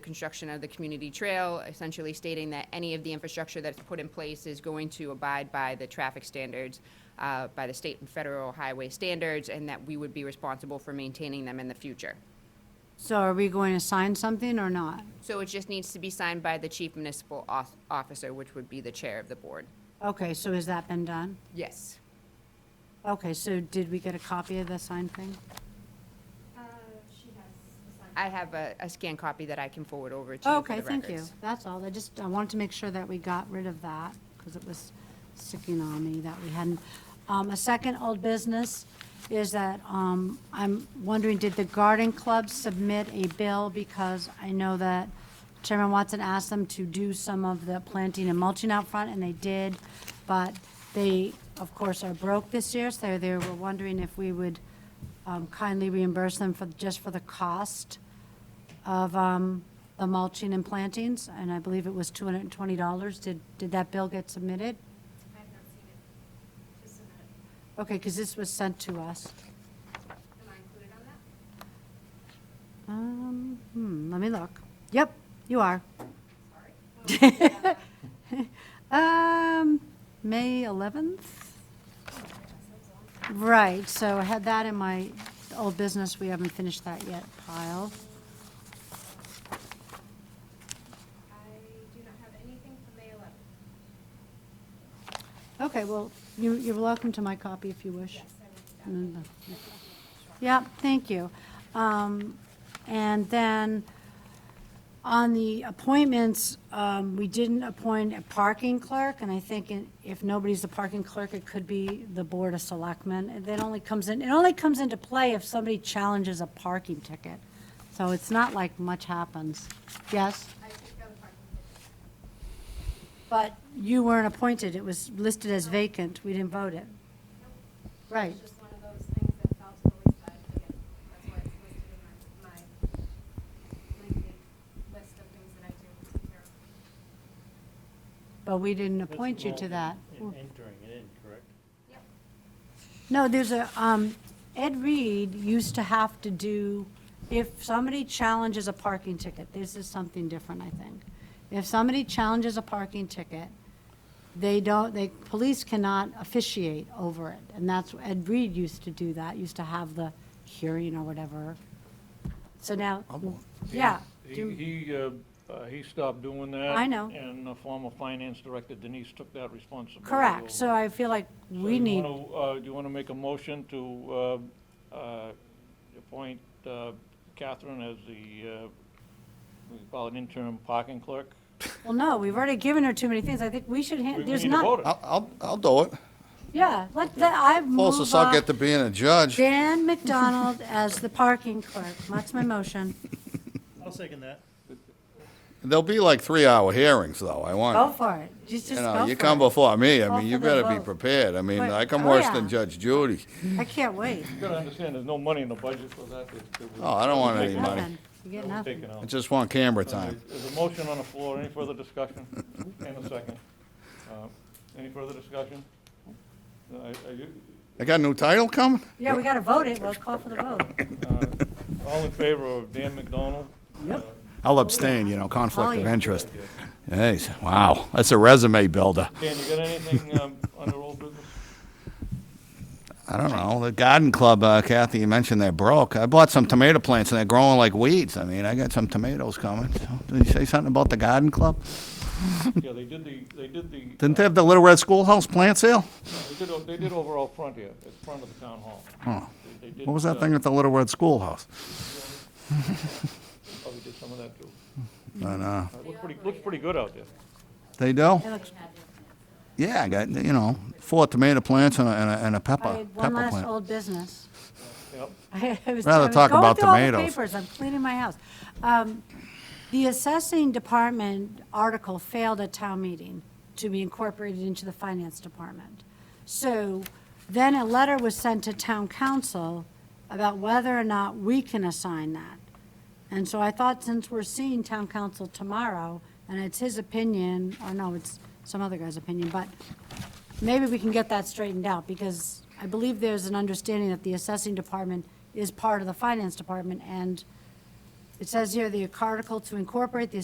construction of the community trail, essentially stating that any of the infrastructure that's put in place is going to abide by the traffic standards, uh, by the state and federal highway standards, and that we would be responsible for maintaining them in the future. So are we going to sign something or not? So it just needs to be signed by the chief municipal off- officer, which would be the chair of the board. Okay, so has that been done? Yes. Okay, so did we get a copy of the signed thing? Uh, she has assigned. I have a, a scan copy that I can forward over to you for Okay, the thank you. records. That's all. I just, I wanted to make sure that we got rid of that because it was sticking on me that we hadn't. Um, a second old business is that, um, I'm wondering, did the garden club submit a bill? Because I know that Chairman Watson asked them to do some of the planting and mulching out front and they did. But they, of course, are broke this year, so they were wondering if we would, um, kindly reimburse them for, just for the cost of um, the mulching and plantings, and I believe it was $220. Did, did that bill get submitted? I have not seen it. Just a minute. Okay, because this was sent to us. Am I included on that? Um, hmm, let me look. Yep, you are. Sorry. Um, May 11th? Right, so I had that in my old business, we haven't finished that yet pile. I do not have anything for May 11th. Okay, well, you, you're welcome to my copy if you wish. Yes, I will do that. Mm, Yep, thank you. Um, And then, on the appointments, um, we didn't appoint a parking clerk, and I think in- if nobody's the parking clerk, it could be the Board of Selectmen. And That only comes in, it only comes into play if somebody challenges a parking ticket. So it's not like much happens. Yes? I took down the parking ticket. But you weren't appointed, it was listed as vacant, we didn't vote it. Right. It's just one of those things that fell to the wayside again. That's why it's listed in my, my lengthy list of things that I do to take care of. But we didn't That's appoint you to that. involved in- in Entering it in, correct? Yep. No, there's a, um, Ed Reed used to have to do, if somebody challenges a parking ticket, this is something different, I think. If somebody challenges a parking ticket, they don't, they, police cannot officiate over it. And that's, Ed Reed used to do that, used to have the hearing or whatever. So now, yeah. He, do- he, uh, uh, he stopped doing that. I know. And the former finance director Denise took that responsibility. over. Correct, so I feel like So we you need, wanna, uh, Do you want to make a motion to uh, uh, appoint uh, Catherine as the, uh, we call it interim parking clerk? well, no, we've already given her too many things. I think we should, We- hand. we there's need to vote not, it. I'll, I'll, I'll do it. yeah, let, that- I move on. Closest I'll get to being a judge. Dan McDonald as the parking clerk. That's my motion. I'll second that. There'll be like three-hour hearings, though. I Go want, for it. Just, you just go know, for you come it. before me, Go I mean, you for the better be vote. prepared. I mean, Wait, like I'm oh, worse yeah. than Judge Judy. I can't wait. You gotta understand, there's no money in the budget for that. that- that was- Oh, I don't want that was any taken- money. Nothing. You that get was nothing. taken out. I just want camera time. There's a motion on the floor, any further discussion? And a second. Uh, Any further discussion? Uh, are you- I got a new title coming? Yeah, we gotta vote it. We'll call for the vote. uh, All in favor of Dan McDonald? Yep. I'll abstain, you know, conflict Oh, of yeah. interest. Hey, wow, that's a resume builder. Dan, you got anything um, under old business? I don't know, the garden club, uh, Kathy, you mentioned they're broke. I bought some tomato plants and they're growing like weeds. I mean, I got some tomatoes coming. So, Did you say something about the garden club? Yeah, they did the, they did the. uh, Didn't they have the Little Red Schoolhouse plant sale? They did, o- they did overall front here, at front of the town hall. Oh. They- they did, What was that uh, thing at the Little Red Schoolhouse? Oh, they did some of that too. And, uh, Uh, Looks pretty, looks pretty good out there. they do? It looks- Yeah, I got, you know, four tomato plants and a, and a, and a I pepper, had one pepper last plant. old business. Yep. I was- Rather I was talk going about through all the tomatoes. papers. I'm cleaning my house. Um, The assessing department article failed at town meeting to be incorporated into the finance department. So then a letter was sent to town council about whether or not we can assign that. And so I thought since we're seeing town council tomorrow, and it's his opinion, or no, it's some other guy's opinion, but maybe we can get that straightened out, because I believe there's an understanding that the assessing department is part of the finance department, and It says here, the article to incorporate the